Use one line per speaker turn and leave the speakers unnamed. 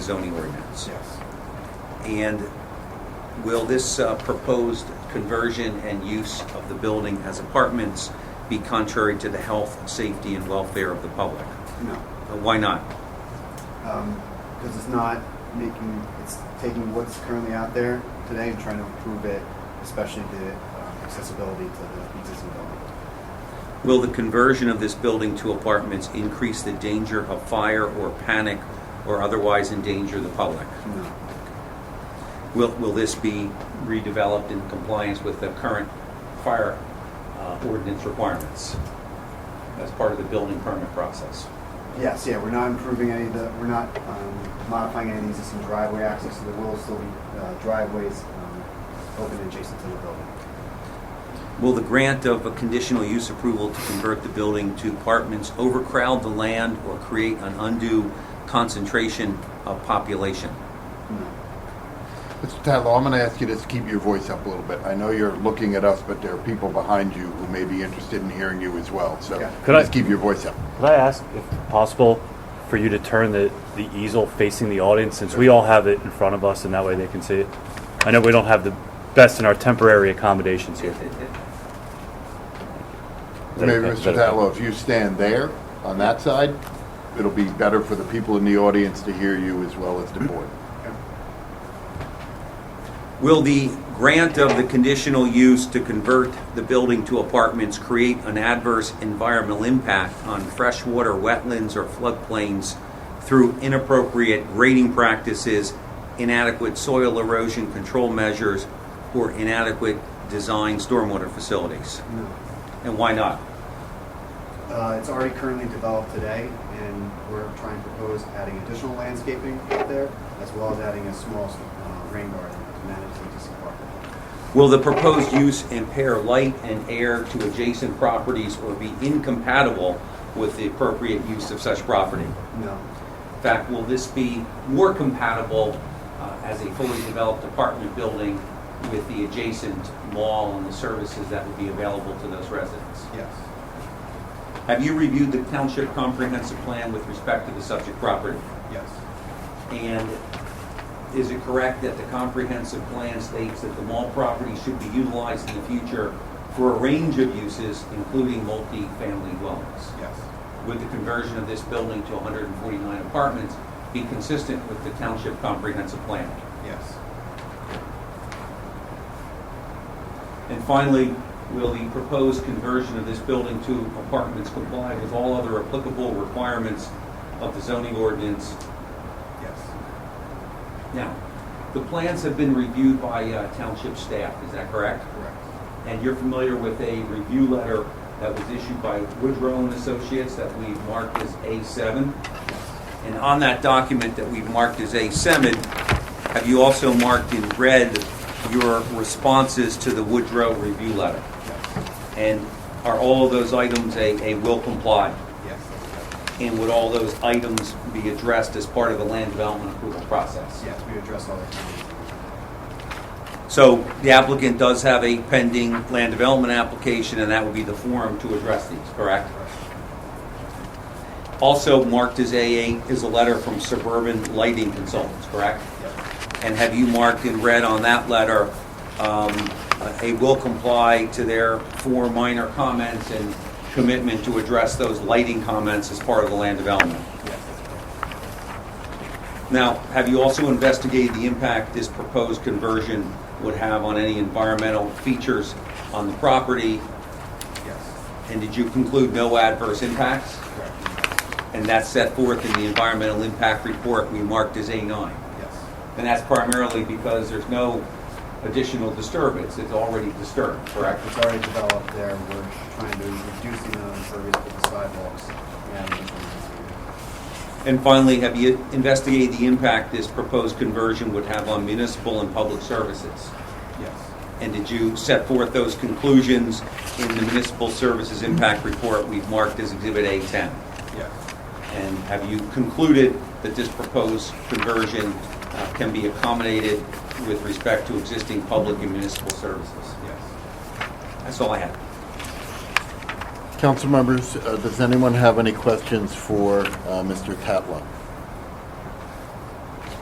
zoning ordinance.
Yes.
And will this uh, proposed conversion and use of the building as apartments be contrary to the health, safety, and welfare of the public?
No.
Uh, Why not?
Because it's not making, it's taking what's currently out there today and trying to improve it, especially the um, accessibility to the existing building.
Will the conversion of this building to apartments increase the danger of fire or panic or otherwise endanger the public?
No.
Will, will this be redeveloped in compliance with the current fire uh, ordinance requirements as part of the building permit process?
Yes, yeah, we're not improving any of the, we're not um, modifying any of the existing driveway access, so there will still be uh, driveways um, open and adjacent to the building.
Will the grant of a conditional use approval to convert the building to apartments overcrowd the land or create an undue concentration of population?
No.
Mr. Tatlow, I'm going to ask you to keep your voice up a little bit. I know you're looking at us, but there are people behind you who may be interested in hearing you as well. So
Yeah.
Could I-
just keep your voice up.
Could I ask, if possible, for you to turn the, the easel facing the audience, since we all have it in front of us, and that way they can see it? I know we don't have the best in our temporary accommodations here. that
Maybe
okay? Is
Mr.
that okay?
Tatlow, if you stand there on that side, it'll be better for the people in the audience to hear you as well as the board.
Will the grant of the conditional use to convert the building to apartments create an adverse environmental impact on freshwater wetlands or floodplains through inappropriate grading practices, inadequate soil erosion control measures, or inadequate design stormwater facilities?
No.
And why not?
Uh, It's already currently developed today, and we're trying to propose adding additional landscaping out there, as well as adding a small uh, rain garden to manage the existing park.
Will the proposed use impair light and air to adjacent properties or be incompatible with the appropriate use of such property?
No.
In fact, will this be more compatible uh, as a fully developed apartment building with the adjacent mall and the services that would be available to those residents?
Yes.
Have you reviewed the township comprehensive plan with respect to the subject property?
Yes.
And is it correct that the comprehensive plan states that the mall property should be utilized in the future for a range of uses, including multi-family dwellings?
Yes.
Would the conversion of this building to 149 apartments be consistent with the township comprehensive plan?
Yes.
And finally, will the proposed conversion of this building to apartments comply with all other applicable requirements of the zoning ordinance?
Yes.
Now, the plans have been reviewed by uh, township staff, is that correct?
Correct.
And you're familiar with a review letter that was issued by Woodrow and Associates that we marked as A7? And on that document that we've marked as A7, have you also marked in red your responses to the Woodrow review letter?
Yes.
And are all of those items a, a will comply?
Yes. that's correct.
And would all those items be addressed as part of the land development approval process?
Yes, we address all the comments.
So the applicant does have a pending land development application, and that would be the forum to address these, correct? Also marked as AA is a letter from Suburban Lighting Consultants, correct?
Yes.
And have you marked in red on that letter, um, a will comply to their four minor comments and commitment to address those lighting comments as part of the land development?
Yes. that's correct.
Now, have you also investigated the impact this proposed conversion would have on any environmental features on the property?
Yes.
And did you conclude no adverse impacts?
Correct.
And that's set forth in the environmental impact report we marked as A9.
Yes.
And that's primarily because there's no additional disturbance, it's already disturbed, correct?
Correct, it's already developed there, we're trying to reduce the amount of impervious with the sidewalks and.
And finally, have you investigated the impact this proposed conversion would have on municipal and public services?
Yes.
And did you set forth those conclusions in the municipal services impact report we've marked as Exhibit A10?
Yes.
And have you concluded that this proposed conversion uh, can be accommodated with respect to existing public and municipal services?
Yes.
That's all I have.
Council members, uh, does anyone have any questions for uh, Mr. Tatlow?